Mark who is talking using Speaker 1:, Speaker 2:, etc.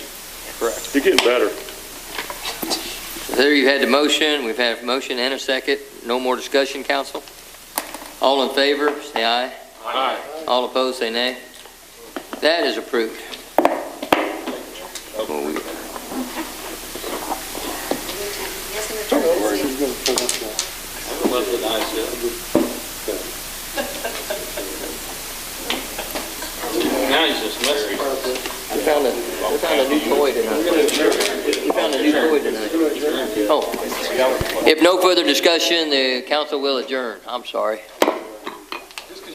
Speaker 1: Correct.
Speaker 2: You're getting better.
Speaker 3: There you had the motion, we've had a motion and a second, no more discussion, council? All in favor, say aye. Aye. All opposed, say nay. That is approved.
Speaker 1: Now he's just messing.
Speaker 3: We found a, we found a new toy tonight. We found a new toy tonight. Oh. If no further discussion, the council will adjourn. I'm sorry.